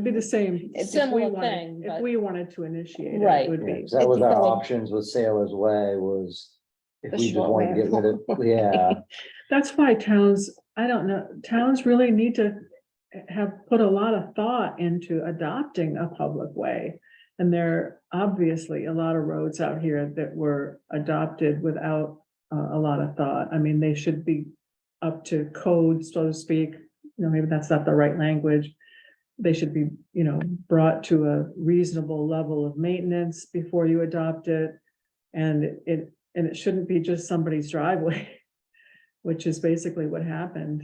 It'd Be the same. if we Similar wanted- thing, If but- we wanted to initiate it, Right. it, would Yeah, be. 'cause that was our Because- options with Sailor's Way was if The we just short wanted to way get rid of, yeah, That's why towns, I don't know, towns really need to have put a lot of thought into adopting a public way. And there are obviously a lot of roads out here that were adopted without uh, a lot of thought. I mean, they should be up to code, so to speak. You know, maybe that's not the right language. They should be, you know, brought to a reasonable level of maintenance before you adopt it. And it, and it shouldn't be just somebody's driveway which is basically what happened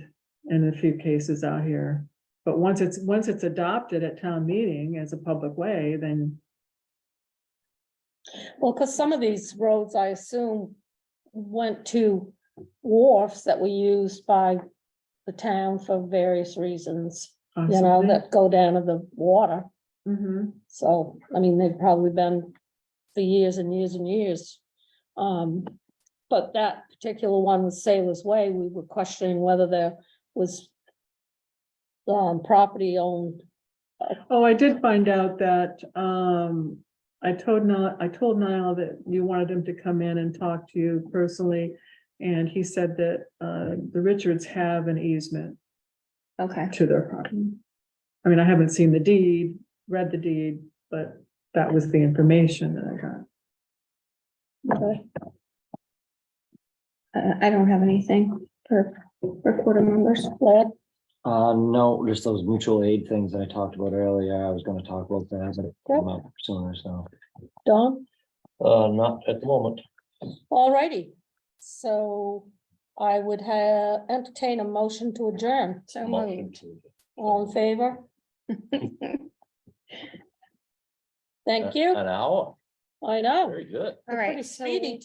in a few cases out here. But once it's, once it's adopted at town meeting as a public way, then Well, because some of these roads, I assume, went to wharfs that were used by the town for various reasons, you know, possibly. that go down to the water. Mhm. So, I mean, they've probably been for years and years and years. Um, but that particular one with Sailor's Way, we were questioning whether there was um, property owned, Oh, I did find out that, um, I told Niall, I told Niall that you wanted him to come in and talk to you personally. And he said that, uh, the Richards have an easement Okay, to their property. I mean, I haven't seen the deed, read the deed, but that was the information that I got. uh, I don't have anything for reporter members. Led, uh, no, just those mutual aid things that I talked about earlier, I was gonna talk about that, but it came up sooner, so. Don? Uh, not at the moment. Alrighty, so I would have entertain a motion to adjourn. So moved. All in favor? Thank you. An hour, I know. Uh, very good. All Pretty Oh. right. so speedy